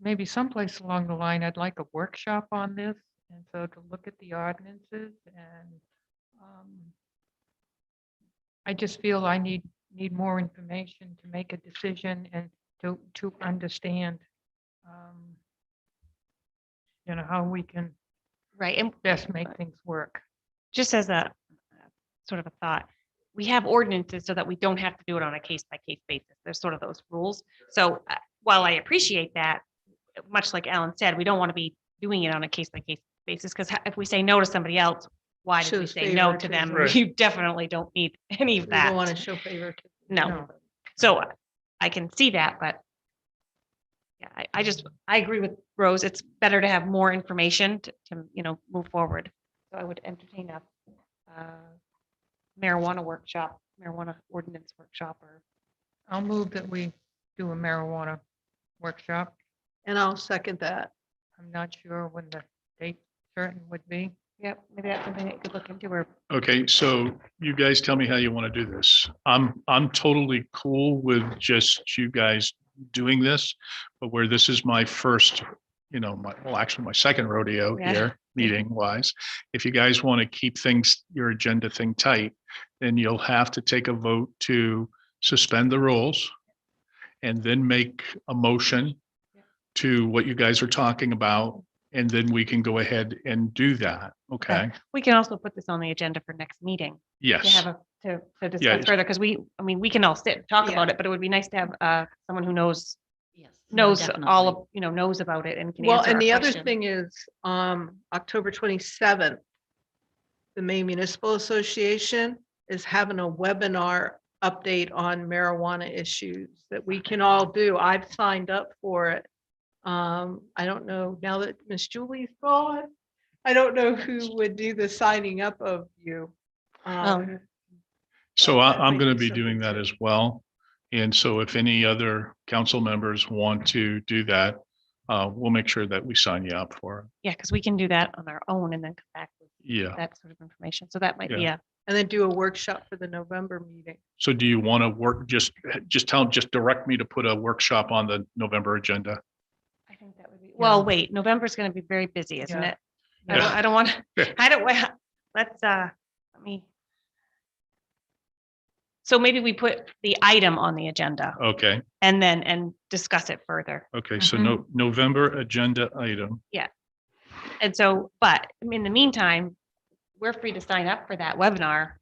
maybe someplace along the line, I'd like a workshop on this. And so to look at the ordinances and um, I just feel I need, need more information to make a decision and to, to understand, um, you know, how we can Right, and best make things work. just as a uh, sort of a thought, we have ordinances so that we don't have to do it on a case by case basis. There's sort of those rules. So uh, while I appreciate that, much like Alan said, we don't want to be doing it on a case by case basis because if we say no to somebody else, why did we Shows say no favor to to them? Right. You definitely don't need any of We don't want to that. show favor. to- No, so uh, I can see that, but yeah, I, I just, I agree with Rose. It's better to have more information to, to, you know, move forward. So I would entertain a uh, marijuana workshop, marijuana ordinance workshop or. I'll move that we do a marijuana workshop. And I'll second that. I'm not sure when the date certain would be. Yep, maybe that's something that you could look into or. Okay, so you guys tell me how you want to do this. I'm, I'm totally cool with just you guys doing this, but where this is my first, you know, my, well, actually my second rodeo Yeah. here, meeting wise. If you guys want to keep things, your agenda thing tight, then you'll have to take a vote to suspend the rules and then make a motion to what you guys are talking about, and then we can go ahead and do that. Okay, We can also put this on the agenda for next meeting yes. to have a, to, to Yeah. discuss further, because we, I mean, we can all sit and talk Yeah. about it, but it would be nice to have uh, someone who knows, Yes. no, knows all definitely. of, you know, knows about it and can Well, answer. and our the other questions. thing is, um, October twenty-seventh, the Maine Municipal Association is having a webinar update on marijuana issues that we can all do. I've signed up for it. Um, I don't know, now that Miss Julie's gone, I don't know who would do the signing up of you. Um, Um, So Yeah, I, that I'm might gonna be be doing something that to- as well. And so if any other council members want to do that, uh, we'll make sure that we sign you up for Yeah, because we can do that on our own and then come back with it. Yeah. that sort of information. So that might be a, and then do a workshop for the November meeting. So do you want to work, just, just tell, just direct me to put a workshop on the November agenda? I think that would be, well, Yeah. wait, November's going to be very busy, isn't Yeah. it? I don't- Yeah. I don't want, Yeah. to. I don't, wa- let's, uh, let me. So maybe we put the item on the agenda Okay, and then, and discuss it further. okay, so no, November agenda item. And so, but in the meantime, we're free to sign up for that webinar.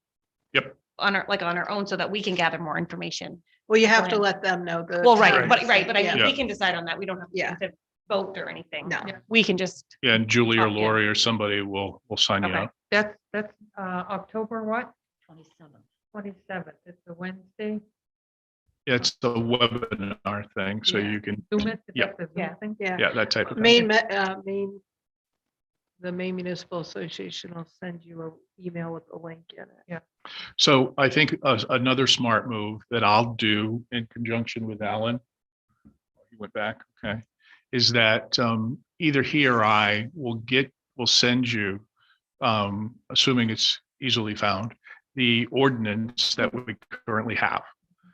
Yep. On our, like on our own so that we can gather more information. Well, you have to Plan. let them know the. Well, right, time. but, right, but I mean, Yeah. we can decide on that. We don't have Yeah. to vote or anything. No. We can just Yeah, And Julie or Oh, yeah. Lori or somebody will, will sign you Okay. up. That's, that's uh, October what? 27. Twenty-seventh. It's a Wednesday. Yeah, It's the webinar thing, so Yeah. you can, Zoom it. Is Yeah. that the Zoom Yeah. thing? Yeah. yeah, that type of thing. Maine, Me- uh, Maine, the Maine Municipal Association will send you an email with a e-. link in it. So I think a- another smart move that I'll do in conjunction with Alan. oh, He went back, okay, is that um, either he or I will get, will send you, um, assuming it's easily found, the ordinance that we currently have.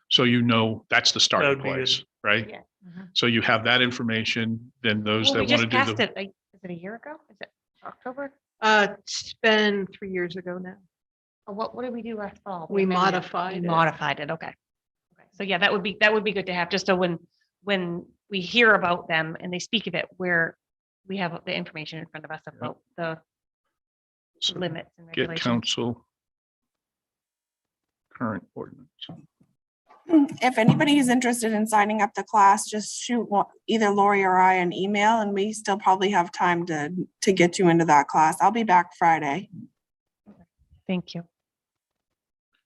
So you know, that's the starting That'd be good. place, right? Yeah. uh-huh. Mhm. So you have that information, then those Well, we that want to just do passed the, it, a- is it a year ago? Is it October? Uh, it's been three years ago now. Or Oh, what, what did we do last fall? We amended it. modified We it. Modified it, okay. Okay. So yeah, that would be, that would be good to have, just so when, when we hear about them and they speak of it, where we have the information in front of us about the so limits and get regulations. council current ordinance. Hmm, If anybody is interested in signing up the class, just shoot one- either Lori or I an email and we still probably have time to, to get you into that class. I'll be back Friday. Thank you.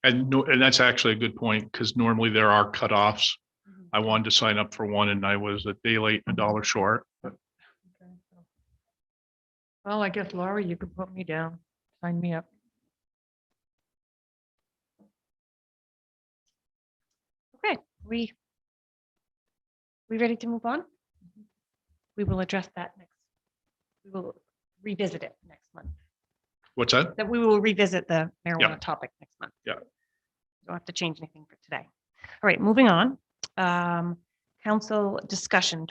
And no, and that's actually a good point, because normally there are cutoffs. Mhm. I wanted to sign up for one and I was a day late, and a dollar short. Okay, so- Well, I guess Laura, you can put me down, sign me up. Okay, we, we ready to move on? Mm-hmm. We will address that next, we will revisit it next month, What's that? that we will revisit the marijuana topic next month. Yeah. Don't have to change anything for today. All right, moving on. Um, Council discussion